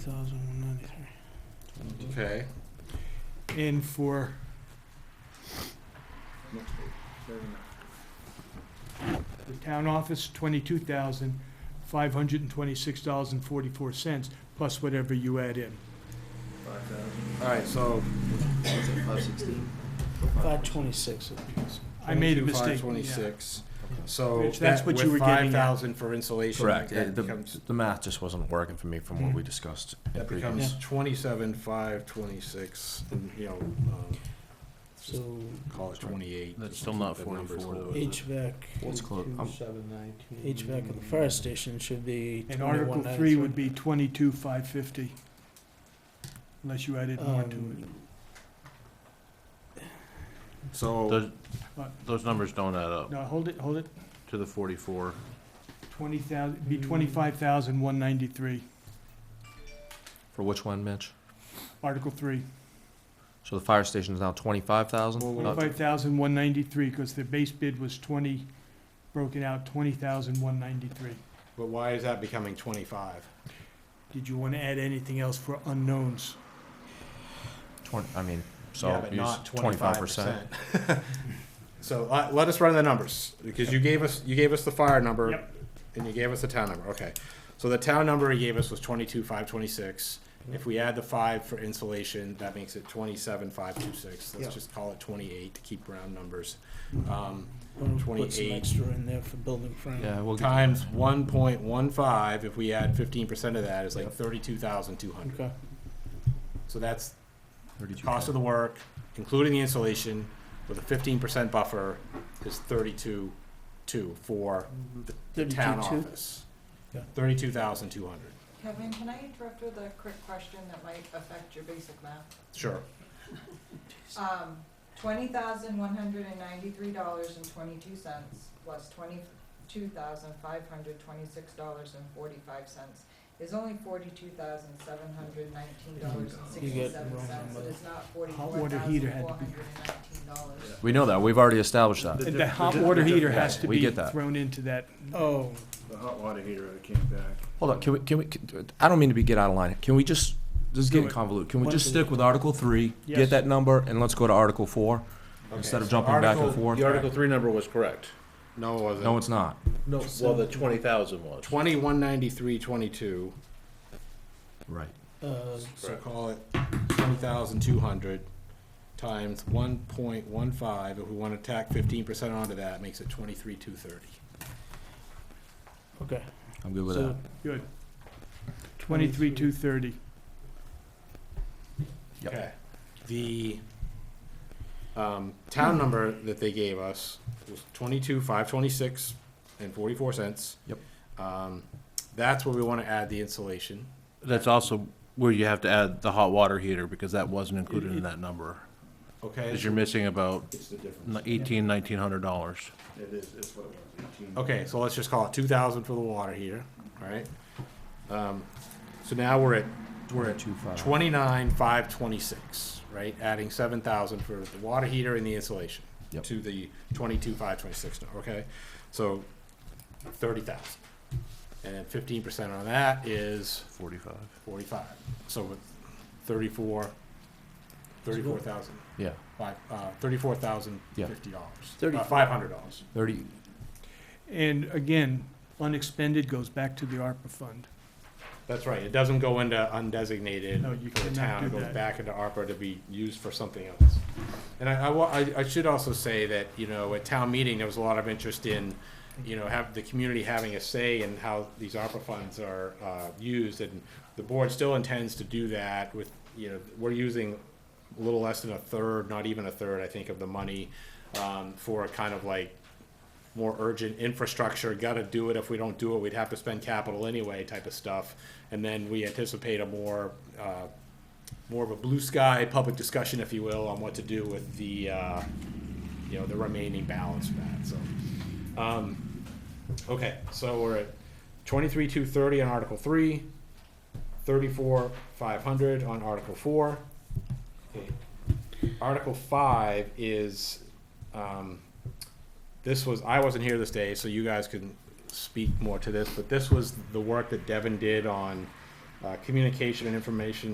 thousand one ninety-three. Okay. And for, Next page, thirty-nine. The town office, twenty-two thousand, five hundred and twenty-six dollars and forty-four cents, plus whatever you add in. Five thousand. All right. So What's it, five sixteen? Five twenty-six. I made a Five mistake. twenty-six. So Rich, that's that- what you were with getting five at. thousand for insulation. Correct. That It- the- becomes, The math just wasn't working for me from what we Mhm. discussed. in that previous- becomes twenty-seven, five, twenty-six, and, you know, um, just So call it twenty-eight. That's just still to not keep the numbers 44, low. though, is it? HVAC, Let's close, I'm- HVAC at the fire station should be And Article twenty-one three would ninety-three. be twenty-two, five fifty. Unless you added more to Um, it. So, Those, those numbers don't add up No, hold it, hold it. to the forty-four. Twenty thousand, Hmm. be twenty-five thousand, one ninety-three, For which one, Mitch? Article three. So the fire station is now twenty-five thousand? Uh, Twenty-five thousand, one ninety-three, because the base bid was twenty, broken out, twenty thousand, one ninety-three. but why is that becoming twenty-five? Did you want to add anything else for unknowns? Twenty, I mean, Yeah, so but use not twenty-five percent. 25%. So uh, let, let us run the numbers, because you gave us, you gave us the fire number, Yep. and you gave us the town number, okay. So the town number he gave us was twenty-two, five, twenty-six. If we add the five for insulation, that makes it twenty-seven, five, two, six. Yeah. Let's just call it twenty-eight to keep round numbers. Um, Put some 28. extra in there for building frame. Yeah, we'll get, Times one point one five, if we add fifteen percent of that, is like thirty-two thousand, two hundred. Okay, So that's thirty-two. cost of the work, including the insulation, with a fifteen percent buffer, is thirty-two, two for the town Thirty-two-two? office. Yeah. Thirty-two thousand two hundred, Kevin, can I interrupt with a quick question that might affect your basic math? sure. Um, twenty thousand one hundred and ninety-three dollars and twenty-two cents plus twenty-two thousand five hundred twenty-six dollars and forty-five cents is only forty-two thousand seven hundred nineteen dollars and You get sixty-seven wrong cents. It number. is not Hot forty-four water thousand four heater hundred had and to be- nineteen dollars. We know that, we've already established that. The hot water heater has to We be get that. thrown into that. oh, The hot water heater that came back. Hold on, can we, can we, I don't mean to be, get out of line. Can we just, this is Do getting it. convoluted. Can we Why just don't we- stick with Article three? Yes. Get that number and let's go to Article four? Instead of jumping back and forth. The Article three number was correct. No, it wasn't. No, it's not. No. Well, the twenty thousand was. Twenty-one ninety-three, twenty-two, Right. uh, so Correct. call it twenty thousand two hundred times one point one five, if we wanna tack fifteen percent onto that, makes it twenty-three, two thirty. okay. I'm good with So- that. Good. Twenty-three, two thirty. Yep. Okay. The um, Hmm. town number that they gave us was twenty-two, five twenty-six and forty-four cents. Yep. Um, that's where we wanna add the insulation. That's also where you have to add the hot water heater, because that wasn't included in that number. Okay, Because you're missing about It's the difference. eighteen, nineteen hundred dollars. It is, it's what it was, eighteen. okay, so let's just call it two thousand for the water heater, alright? Um, so now we're at, we're at Two five. twenty-nine, five twenty-six, right? Adding seven thousand for the water heater and the insulation. Yep. To the twenty-two, five twenty-six, okay? So thirty thousand. And then fifteen percent on that is Forty-five. forty-five. So with thirty-four, thirty-four thousand, Yeah, five, uh, thirty-four thousand Yeah. fifty dollars. Thirty- Uh, five hundred dollars. thirty, And again, unexpended goes back to the ARPA fund. That's right. It doesn't go into undesignated No, you for the cannot town. do It goes that. back into ARPA to be used for something else. And I, I wa- I, I should also say that, you know, at town meeting, there was a lot of interest in, you know, have the community having a say in how these ARPA funds are, uh, used. And the board still intends to do that with, you know, we're using a little less than a third, not even a third, I think, of the money, um, for a kind of like more urgent infrastructure, gotta do it, if we don't do it, we'd have to spend capital anyway type of stuff. And then we anticipate a more, uh, more of a blue sky public discussion, if you will, on what to do with the, uh, you know, the remaining balance of that, so. Um, okay, so we're at twenty-three, two thirty on Article three, thirty-four, five hundred on Article four. Okay. Article five is, um, this was I wasn't here this day, so you guys can speak more to this. But this was the work that Devin did on uh, communication and information